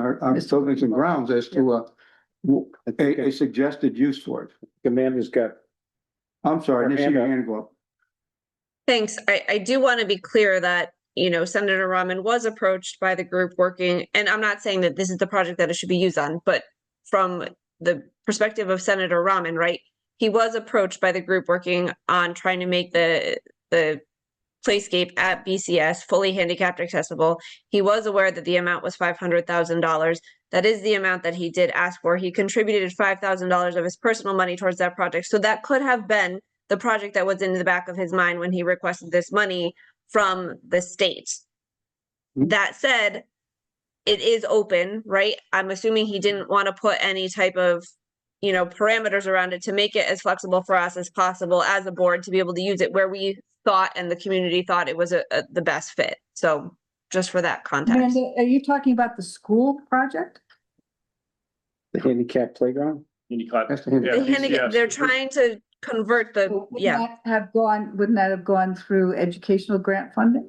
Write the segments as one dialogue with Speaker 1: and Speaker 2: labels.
Speaker 1: on buildings and grounds as to a, a, a suggested use for it.
Speaker 2: Amanda's got,
Speaker 1: I'm sorry, I didn't see your hand go up.
Speaker 3: Thanks. I, I do want to be clear that, you know, Senator Rahman was approached by the group working, and I'm not saying that this is the project that it should be used on, but from the perspective of Senator Rahman, right? He was approached by the group working on trying to make the, the playscape at BCS fully handicapped accessible. He was aware that the amount was five hundred thousand dollars. That is the amount that he did ask for. He contributed five thousand dollars of his personal money towards that project. So that could have been the project that was in the back of his mind when he requested this money from the state. That said, it is open, right? I'm assuming he didn't want to put any type of, you know, parameters around it to make it as flexible for us as possible as a board to be able to use it where we thought and the community thought it was a, a- the best fit. So just for that context.
Speaker 4: Amanda, are you talking about the school project?
Speaker 2: the handicap playground?
Speaker 5: Handicap.
Speaker 1: That's the hand-
Speaker 5: Yeah,
Speaker 3: The handicap-
Speaker 5: BCS.
Speaker 3: They're trying to convert the,
Speaker 4: Wouldn't
Speaker 3: Uh, yeah.
Speaker 4: that Have gone, wouldn't that have gone through educational grant funding?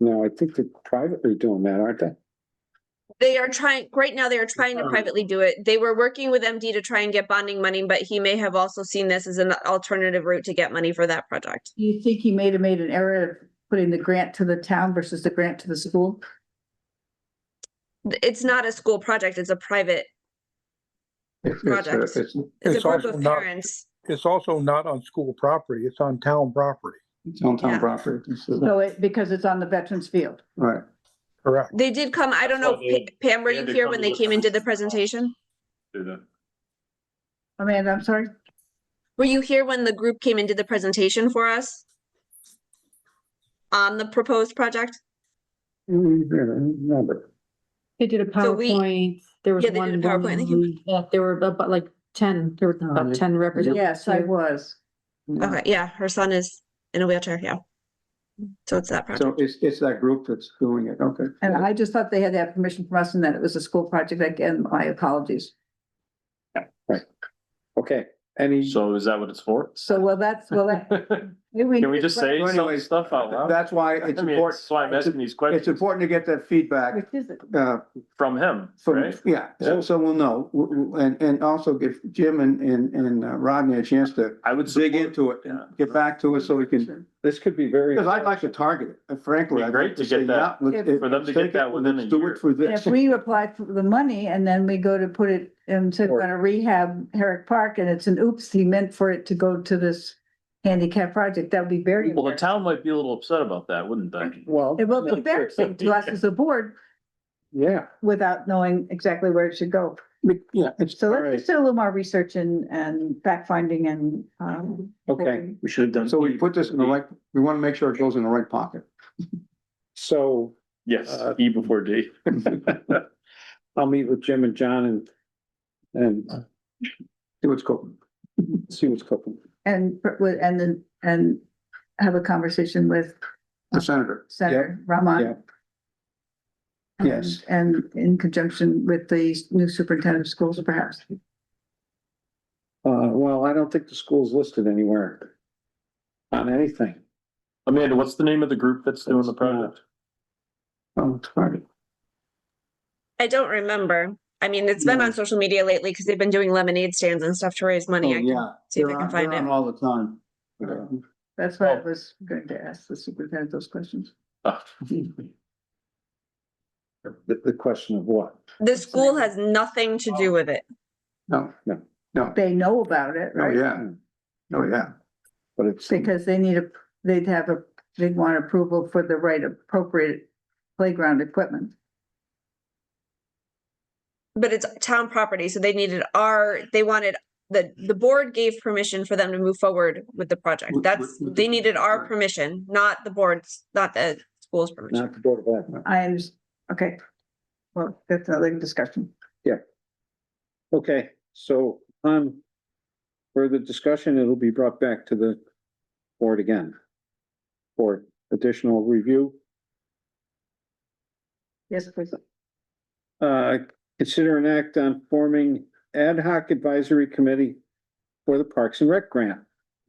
Speaker 2: No, I think they're privately doing that, aren't they?
Speaker 3: They are trying, right now they are trying to
Speaker 5: Confirmed.
Speaker 3: privately do it. They were working with MD to try and get bonding money, but he may have also seen this as an alternative route to get money for that project.
Speaker 4: Do you think he may have made an error of putting the grant to the town versus the grant to the school?
Speaker 3: Th- It's not a school project, it's a private,
Speaker 1: it's- it's a-
Speaker 3: Project.
Speaker 1: it's-
Speaker 3: it's a
Speaker 6: It's
Speaker 3: group
Speaker 6: also
Speaker 3: of
Speaker 6: not-
Speaker 3: parents.
Speaker 6: It's also not on school property, it's on town property,
Speaker 1: It's on
Speaker 3: Yeah.
Speaker 1: town property. This is-
Speaker 4: So it, because it's on the veterans field.
Speaker 1: Right.
Speaker 6: correct?
Speaker 3: They did come, I don't know,
Speaker 5: That's why
Speaker 3: Pa- Pam, were
Speaker 5: they
Speaker 3: you
Speaker 5: had to
Speaker 3: here
Speaker 5: come
Speaker 3: when
Speaker 5: to
Speaker 3: they
Speaker 5: the
Speaker 3: came and did the
Speaker 5: conference.
Speaker 3: presentation?
Speaker 5: Do that.
Speaker 4: Amanda, I'm sorry.
Speaker 3: Were you here when the group came and did the presentation for us? On the proposed project?
Speaker 2: Mm, yeah, I Remember,
Speaker 7: They did a
Speaker 3: So we-
Speaker 7: PowerPoint, there was
Speaker 3: Yeah, they
Speaker 7: one.
Speaker 3: did a PowerPoint, I think.
Speaker 7: woman, uh, There were about like ten, there were
Speaker 2: Oh,
Speaker 7: about ten representatives.
Speaker 4: Yes, I
Speaker 7: here.
Speaker 4: was.
Speaker 1: Mm-hmm.
Speaker 3: Okay, yeah, her son is in a wheelchair, yeah. So it's that project.
Speaker 1: So it's, it's that group that's doing it. Okay.
Speaker 4: And I just thought they had that permission from us and that it was a school project. Again, my apologies.
Speaker 2: okay, any,
Speaker 5: So is that what it's for?
Speaker 4: So well, that's, well, that.
Speaker 5: Can
Speaker 4: we
Speaker 5: we just say
Speaker 1: So
Speaker 5: some
Speaker 1: anyways,
Speaker 5: stuff out loud?
Speaker 1: That's why
Speaker 5: I
Speaker 1: it's
Speaker 5: mean, that's why I'm asking
Speaker 1: important,
Speaker 5: these
Speaker 1: it's
Speaker 5: questions
Speaker 1: important to get that feedback,
Speaker 4: Which is it?
Speaker 1: uh,
Speaker 5: from him,
Speaker 1: From,
Speaker 5: right?
Speaker 1: yeah, so,
Speaker 5: Yeah.
Speaker 1: so we'll know, W- w- and, and also give Jim and, and, and uh, Rodney a chance to
Speaker 5: I would.
Speaker 1: dig
Speaker 5: support-
Speaker 1: into it and
Speaker 5: Yeah.
Speaker 1: get back to us so we can,
Speaker 2: this could be very.
Speaker 1: because I'd like to target it, and frankly.
Speaker 5: Be
Speaker 1: I'd
Speaker 5: great
Speaker 1: like
Speaker 5: to get
Speaker 1: say,
Speaker 5: that-
Speaker 1: yeah, let's-
Speaker 4: If-
Speaker 5: for them to
Speaker 1: let's
Speaker 5: get
Speaker 1: take it,
Speaker 5: that within a
Speaker 1: let's Do
Speaker 5: year.
Speaker 1: it for
Speaker 4: And
Speaker 1: this.
Speaker 4: If we apply for the money and then we go to put it, and say we're gonna rehab Herrick Park and it's an oops, he meant for it to go to this handicap project, that would be very.
Speaker 5: Well, the
Speaker 4: embarrassing.
Speaker 5: town might be a little upset about that, wouldn't they?
Speaker 2: Well.
Speaker 4: It will be embarrassing to us as a board
Speaker 2: Yeah,
Speaker 4: without knowing exactly where it should go.
Speaker 2: but, yeah, it's,
Speaker 4: So
Speaker 2: all
Speaker 4: let's
Speaker 2: right,
Speaker 4: just do a little more research and, and fact finding and, um.
Speaker 2: okay,
Speaker 5: We should have done. E
Speaker 1: So we put this in the right, we want to make sure it goes in the right pocket.
Speaker 2: so
Speaker 5: Yes, E before D.
Speaker 2: I'll meet with Jim and John and, and
Speaker 1: See what's going.
Speaker 2: see what's cooking.
Speaker 4: And, and then, and have a conversation with
Speaker 1: The senator.
Speaker 4: Senator
Speaker 2: yeah.
Speaker 4: Rahman. And-
Speaker 1: Yes.
Speaker 4: And in conjunction with the new superintendent of schools perhaps.
Speaker 2: Uh, well, I don't think the school's listed anywhere on anything.
Speaker 5: Amanda, what's the name of the group that's doing the project?
Speaker 1: Oh, target.
Speaker 3: I don't remember. I mean, it's been
Speaker 1: No.
Speaker 3: on social media lately because they've been doing lemonade stands and stuff to raise
Speaker 1: Oh,
Speaker 3: money. I can
Speaker 1: yeah.
Speaker 3: see if I
Speaker 1: They're
Speaker 3: can
Speaker 1: on-
Speaker 3: find
Speaker 1: they're on
Speaker 3: it.
Speaker 1: All the time.
Speaker 2: Yeah.
Speaker 4: That's why I was going to ask the superintendent those questions.
Speaker 5: Ah,
Speaker 2: The, the question of what?
Speaker 3: The school has nothing to do with it.
Speaker 1: No, no, no,
Speaker 4: They know about it,
Speaker 1: oh,
Speaker 4: right?
Speaker 1: yeah. Oh, yeah.
Speaker 2: Hmm. But it's.
Speaker 4: Because they need a, they'd have a, they'd want approval for the right appropriate playground equipment.
Speaker 3: But it's town property, so they needed our, they wanted, the, the board gave permission for them to move forward with the project.
Speaker 1: With-
Speaker 3: That's,
Speaker 1: with- with
Speaker 3: they
Speaker 1: the-
Speaker 3: needed our
Speaker 1: right.
Speaker 3: permission, not the board's, not the school's permission.
Speaker 2: Not the Board of Ed.
Speaker 4: I, under- okay. Well, that's another discussion.
Speaker 2: Okay, so on further discussion, it'll be brought back to the board again for additional review.
Speaker 4: Yes, please.
Speaker 2: Uh, consider an act on forming ad hoc advisory committee for the Parks and Rec grant.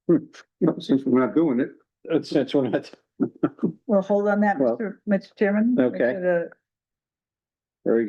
Speaker 2: Hmm,
Speaker 1: No, Since we're not doing it,
Speaker 2: That's, that's what I,
Speaker 4: Well, hold on that,
Speaker 2: Well-
Speaker 4: Mr. Mr. Chairman. Make
Speaker 2: Okay.
Speaker 4: sure